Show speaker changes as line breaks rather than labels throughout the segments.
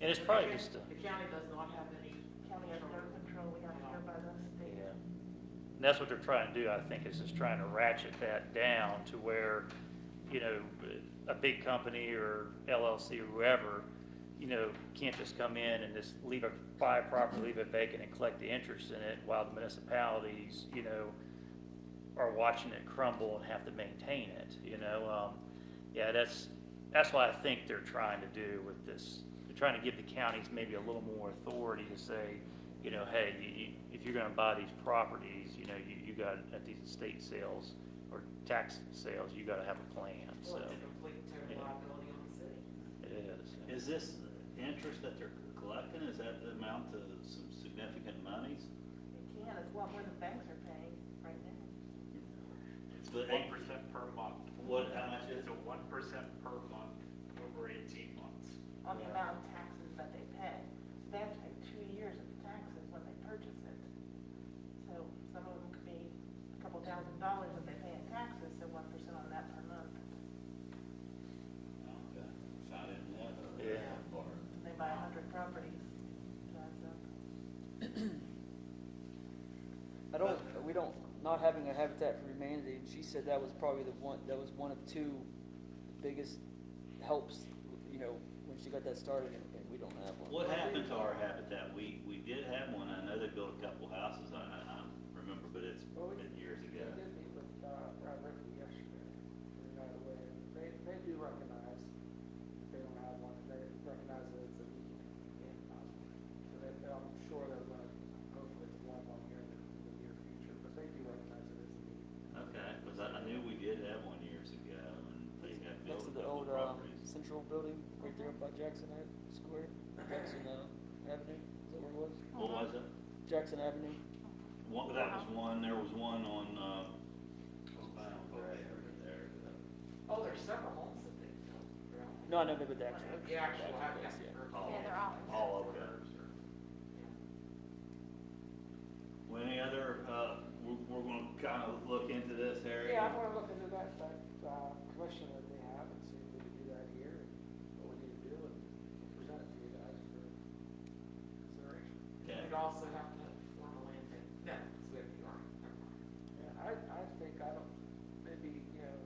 And it's probably just, a-
The county does not have any.
County has no control, we have to go by the
yeah.
state.
And that's what they're trying to do, I think, is just trying to ratchet that down to where, you know, a big company or LLC or whoever, you know, can't just come in and just leave a, buy a property, leave it vacant and collect the interest in it while the municipalities, you know, are watching it crumble and have to maintain it, you know? Um, yeah, that's, that's what I think they're trying to do with this. They're trying to give the counties maybe a little more authority to say, you know, hey, you, you, if you're gonna buy these properties, you know, you, you got, at these estate sales or tax sales, you gotta have a plan, so
Well, it's a complete terrible
yeah.
liability on the city.
it is.
Is this interest that they're collecting, is that the amount to some significant monies?
It can, it's what more the banks are paying right now.
It's
But
one
eight-
percent per month.
What, how much is
It's
it?
a one percent per month over eighteen months.
on the
Yeah.
amount of taxes that they pay. So they have to pay two years of taxes when they purchase it. So some of them could be a couple thousand dollars that they pay in taxes, so one percent on that per month.
Okay, so I didn't know that.
Yeah.
Or-
And they buy a hundred properties, drives up.
I don't, we don't, not having a Habitat for Humanity, she said that was probably the one, that was one of two biggest helps, you know, when she got that started, and and we don't have one.
What happened to our habitat? We, we did have one, I know they built a couple houses, I, I I don't remember, but it's been years ago.
They did meet with, uh, Brad Rickey yesterday, and got away, and they, they do recognize that they don't have one, and they recognize that it's a need. Um, So they, they- I'm sure they're gonna, hopefully it's one one here in the in the near future, but they do recognize it is a need.
Okay, because I, I knew we did have one years ago, and they had built
Next
a
to the
couple
old, uh,
properties.
central building, right there up by Jackson Ave- Square, Jackson, uh, Avenue, is that where it was?
What was it?
Jackson Avenue,
One, that was one, there was one on, uh, Gray over there.
Oh, there's several homes that they built. around there.
no, I know, but the actual.
The actual habitat.
yeah.
for-
Oh,
Yeah.
they're all-
All over there. Well, any other, uh, we're, we're gonna kind of look into this area?
Yeah, I'm gonna look into that, that, uh, commission that they have, and see if we can do that here, and what we need to do, and present it to you guys for consideration.
Okay.
We'd also have to form a land bank. No, it's with the army. Never mind.
Yeah, I, I think, I don't, maybe, you know,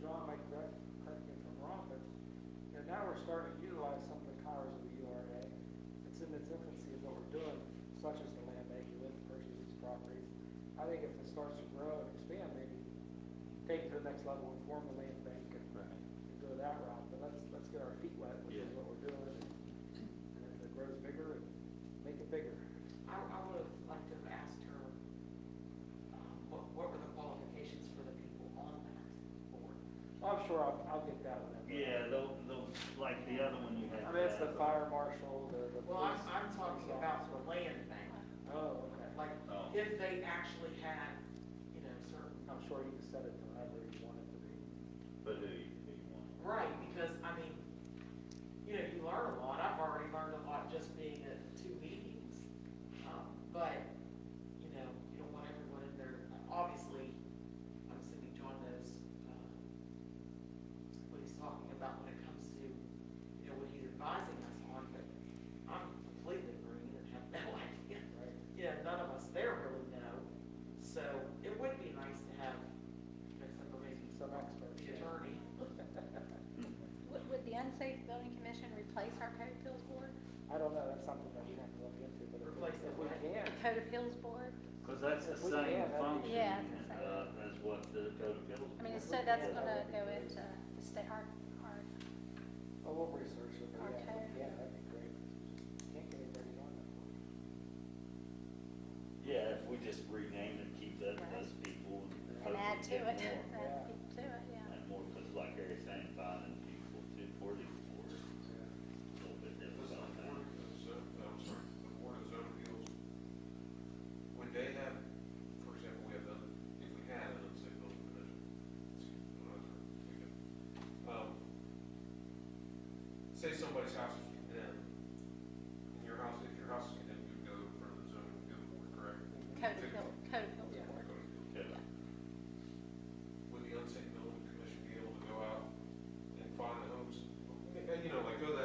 John might correct, correct me if I'm wrong, but, you know, now we're starting to utilize some of the powers of the URA. It's in its infancy of what we're doing, such as the land bank, you live, purchase these properties. I think if it starts to grow and expand, maybe take it to the next level and form the land bank and
Right.
and go that route, but let's, let's get our feet wet, which is
Yeah.
what we're doing. And if it grows bigger, make it bigger.
I, I would have liked to have asked her, um, what, what were the qualifications for the people on that board?
I'm sure I'll, I'll get that one.
Yeah, they'll, they'll, like the other one you had.
I mean, it's the
uh,
fire marshal, the, the.
Well, I'm,
police
I'm talking about the land bank,
officer. Oh, okay.
like,
Oh.
if they actually had, you know, certain
I'm sure you can set it to whatever you want it to be.
But who you, who you want?
Right, because, I mean, you know, you learn a lot, I've already learned a lot just being at two meetings. Um, But, you know, you don't want everyone in there, obviously, I'm assuming John knows, um, what he's talking about when it comes to, you know, what he's advising us on, but I'm completely green and have no idea.
Right.
You know, none of us there really know, so it would be nice to have, you know, somebody,
Some experts.
the attorney,
Would, would the unsafe building commission replace our code appeals board,
I don't know, that's something that we have to look into, but if we-
Replace
if
the
we
what?
can,
code appeals board?
Cause that's the
If we can,
same
that'd be-
function,
Yeah, it's the same.
uh, as what the code of appeals.
I mean, so that's gonna go into the state, our, our,
well, we'll research it, but yeah,
Okay.
yeah, that'd be great. Can't get anybody on that one.
Yeah, if we just renamed it, keep that,
Right.
those people.
and
hopefully
add to
get
it, add
more.
yeah.
people to it, yeah.
And more, cause like Eric saying, finding people to forty four, a
Yeah.
little bit
Was the
difficult.
board
now.
of Zo- I'm sorry, the board of zone appeals, would they have, for example, we have, the- if we had an unsafe building commission, excuse me, I'm sorry, we could, um, say somebody's house is condemned, and your house, if your house is condemned, you'd go in front of the zoning appeal board, correct?
Code appeal, code appeals
Go
board,
to appeal.
Okay.
Would the unsafe building commission be able to go out and find the homes? And, you know, like, go that